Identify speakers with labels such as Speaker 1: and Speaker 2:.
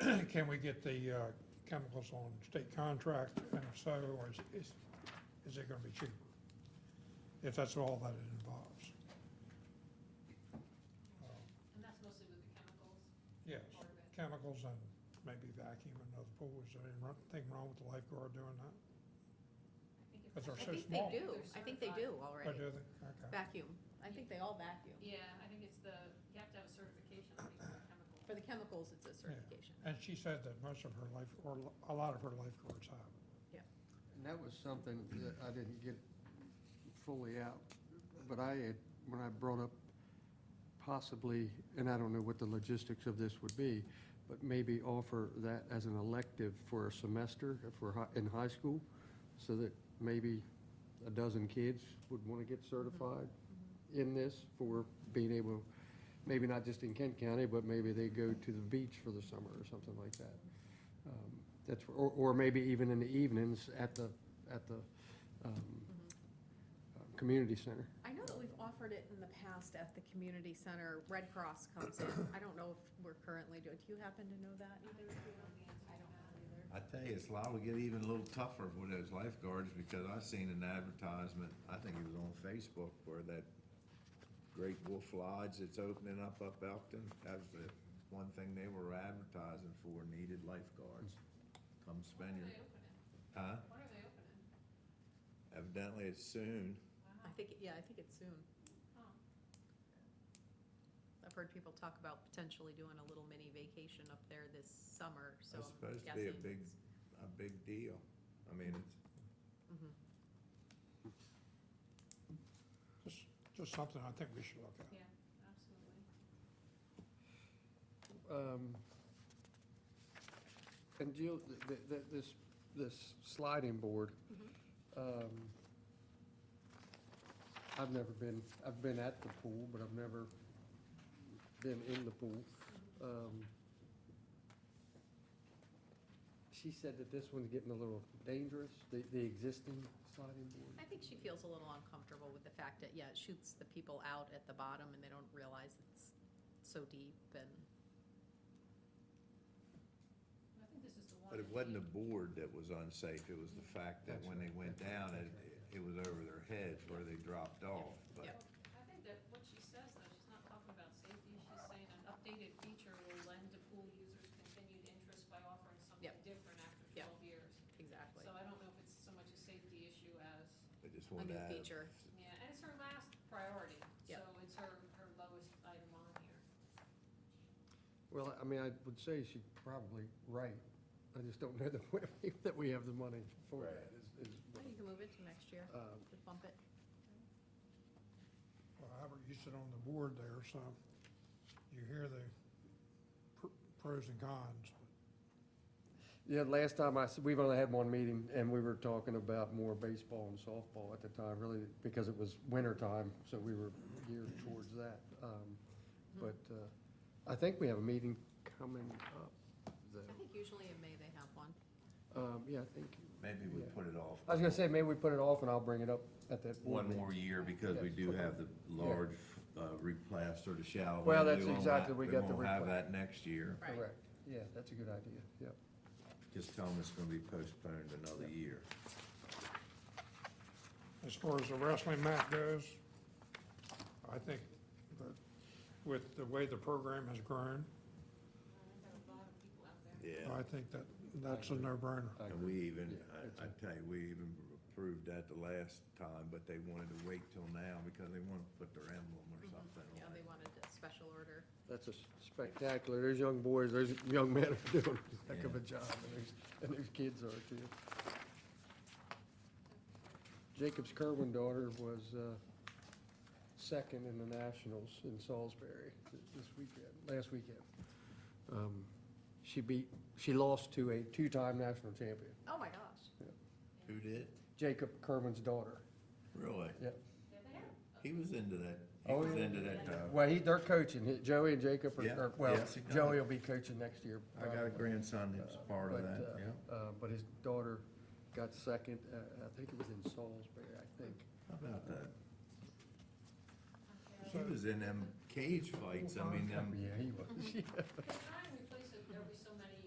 Speaker 1: can we get the uh, chemicals on state contract, and if so, or is, is, is it gonna be cheaper? If that's all that it involves, Uh,
Speaker 2: And that's mostly with the chemicals
Speaker 1: yes,
Speaker 2: part of it.
Speaker 1: chemicals and maybe vacuum and other pools, is there anything wrong with the lifeguard doing that?
Speaker 2: I think it's-
Speaker 1: But they're
Speaker 3: I
Speaker 1: so
Speaker 3: think
Speaker 1: small. uh,
Speaker 3: they do,
Speaker 2: They're
Speaker 3: I think they do
Speaker 2: certified.
Speaker 1: Or
Speaker 3: already.
Speaker 1: do they, okay,
Speaker 3: Vacuum, I think they all vacuum.
Speaker 2: Yeah, I think it's the, you have to have a certification, I think, for chemical.
Speaker 3: For the chemicals, it's a certification.
Speaker 1: and she said that most of her life, or a lot of her lifeguards have.
Speaker 4: And that was something that I didn't get fully out, but I had, when I brought up possibly, and I don't know what the logistics of this would be, but maybe offer that as an elective for a semester for, hi- in high school, so that maybe a dozen kids would want to get certified in this for being able, maybe not just in Kent County, but maybe they go to the beach for the summer or something like that. Um, That's, or, or maybe even in the evenings at the, at the, um, uh, community center.
Speaker 3: I know that we've offered it in the past at the community center, Red Cross comes in, I don't know if we're currently doing, do you happen to know that either? I don't know either.
Speaker 5: I tell you, it's liable to get even a little tougher with those lifeguards, because I seen an advertisement, I think it was on Facebook, where that Great Wolf Lodge that's opening up up Elkton, that was the one thing they were advertising for, needed lifeguards. Come spend
Speaker 2: When are
Speaker 5: your,
Speaker 2: they opening?
Speaker 5: huh?
Speaker 2: When are they opening?
Speaker 5: Evidently it's soon.
Speaker 3: I think, it- yeah, I think it's soon.
Speaker 2: Huh.
Speaker 3: I've heard people talk about potentially doing a little mini vacation up there this summer, so
Speaker 5: That's
Speaker 3: I'm
Speaker 5: supposed to be a
Speaker 3: guessing
Speaker 5: big-
Speaker 3: it's-
Speaker 5: a big deal. I mean, it's,
Speaker 3: Mhm.
Speaker 1: Just, just something I think we should look at.
Speaker 2: Yeah, absolutely.
Speaker 4: Um, And Jill, th- th- th- this, this sliding board, um, I've never been, I've been at the pool, but I've never been in the pool. Um, She said that this one's getting a little dangerous, the, the existing sliding board.
Speaker 3: I think she feels a little uncomfortable with the fact that, yeah, it shoots the people out at the bottom and they don't realize it's so deep and,
Speaker 2: And I think this is the one.
Speaker 5: but it
Speaker 2: that
Speaker 5: wasn't the
Speaker 2: we-
Speaker 5: board that was unsafe, it was the fact that when they went down, it, it was over their heads where they dropped off, but.
Speaker 3: Yep.
Speaker 2: I think that what she says, though, she's not talking about safety, she's saying an updated feature will lend to pool users continued interest by offering something
Speaker 3: Yep.
Speaker 2: different after
Speaker 3: Yep.
Speaker 2: twelve years.
Speaker 3: exactly.
Speaker 2: So I don't know if it's so much a safety issue as
Speaker 5: I just
Speaker 3: A
Speaker 5: wanted
Speaker 3: new
Speaker 5: to add a
Speaker 3: feature.
Speaker 2: Yeah, and it's her last priority, so
Speaker 3: Yep.
Speaker 2: it's her, her lowest item on here.
Speaker 4: Well, I mean, I would say she's probably right. I just don't know that we, that we have the money for
Speaker 5: Right.
Speaker 4: that. is- is what
Speaker 3: Well, You can move it to next year,
Speaker 4: Um,
Speaker 3: just bump it.
Speaker 1: Well, Albert, you sit on the board there, so you hear the pr- pros and cons.
Speaker 4: Yeah, last time I, s- we've only had one meeting, and we were talking about more baseball and softball at the time, really, because it was winter time, so we were geared towards that. Um, But uh, I think we have a meeting coming up,
Speaker 3: I
Speaker 4: though.
Speaker 3: think usually in May they have one.
Speaker 4: Um, Yeah, I think,
Speaker 5: Maybe we
Speaker 4: Yeah.
Speaker 5: put it off.
Speaker 4: I was gonna say, maybe we put it off, and I'll bring it up at that. board
Speaker 5: One
Speaker 4: meeting.
Speaker 5: more year because we do have the large, uh, replaster, the shallow.
Speaker 4: Well,
Speaker 5: end.
Speaker 4: that's
Speaker 5: We won't
Speaker 4: exactly-
Speaker 5: ha-
Speaker 4: we got the
Speaker 5: won't have
Speaker 4: repla-
Speaker 5: that next year.
Speaker 3: Right.
Speaker 4: Correct, yeah, that's a good idea, yep.
Speaker 5: Just tell them it's gonna be postponed another year.
Speaker 1: As far as the wrestling mat goes, I think that with the way the program has grown,
Speaker 2: There are a lot of people out there.
Speaker 1: I think that that's a no-brainer.
Speaker 5: And we even,
Speaker 4: Yeah, that's
Speaker 5: I, I tell you, we even approved that the last time, but they wanted to wait till now because they wanted to put their emblem
Speaker 4: Mm-hmm.
Speaker 5: or something
Speaker 3: Yeah,
Speaker 5: on
Speaker 3: they
Speaker 5: it.
Speaker 3: wanted a special order.
Speaker 4: That's a spectacular, those young boys, those young men are doing a heck of a job, and those, and those kids are too. Jacob's Kerwin daughter was, uh, second in the nationals in Salisbury th- this weekend, last weekend. Um, She beat, she lost to a two-time national champion,
Speaker 3: Oh, my gosh.
Speaker 5: Who did?
Speaker 4: Jacob Kerwin's daughter,
Speaker 5: Really?
Speaker 4: yep.
Speaker 2: Yeah, they have.
Speaker 5: He was into that, he
Speaker 4: Oh,
Speaker 5: was
Speaker 4: yeah.
Speaker 5: into that though.
Speaker 4: Well, he, they're coaching, He- Joey and Jacob are,
Speaker 5: Yeah,
Speaker 4: are- well,
Speaker 5: yes, he got
Speaker 4: Joey
Speaker 5: it.
Speaker 4: will be coaching next year.
Speaker 5: I got a
Speaker 4: probably.
Speaker 5: grandson that's part of
Speaker 4: But,
Speaker 5: that,
Speaker 4: uh,
Speaker 5: yeah.
Speaker 4: uh, But his daughter got second, uh, I think it was in Salisbury, I think.
Speaker 5: How about that?
Speaker 1: So-
Speaker 5: Oh, He was in them cage fights, I mean, them
Speaker 4: Yeah, he was.
Speaker 2: Can I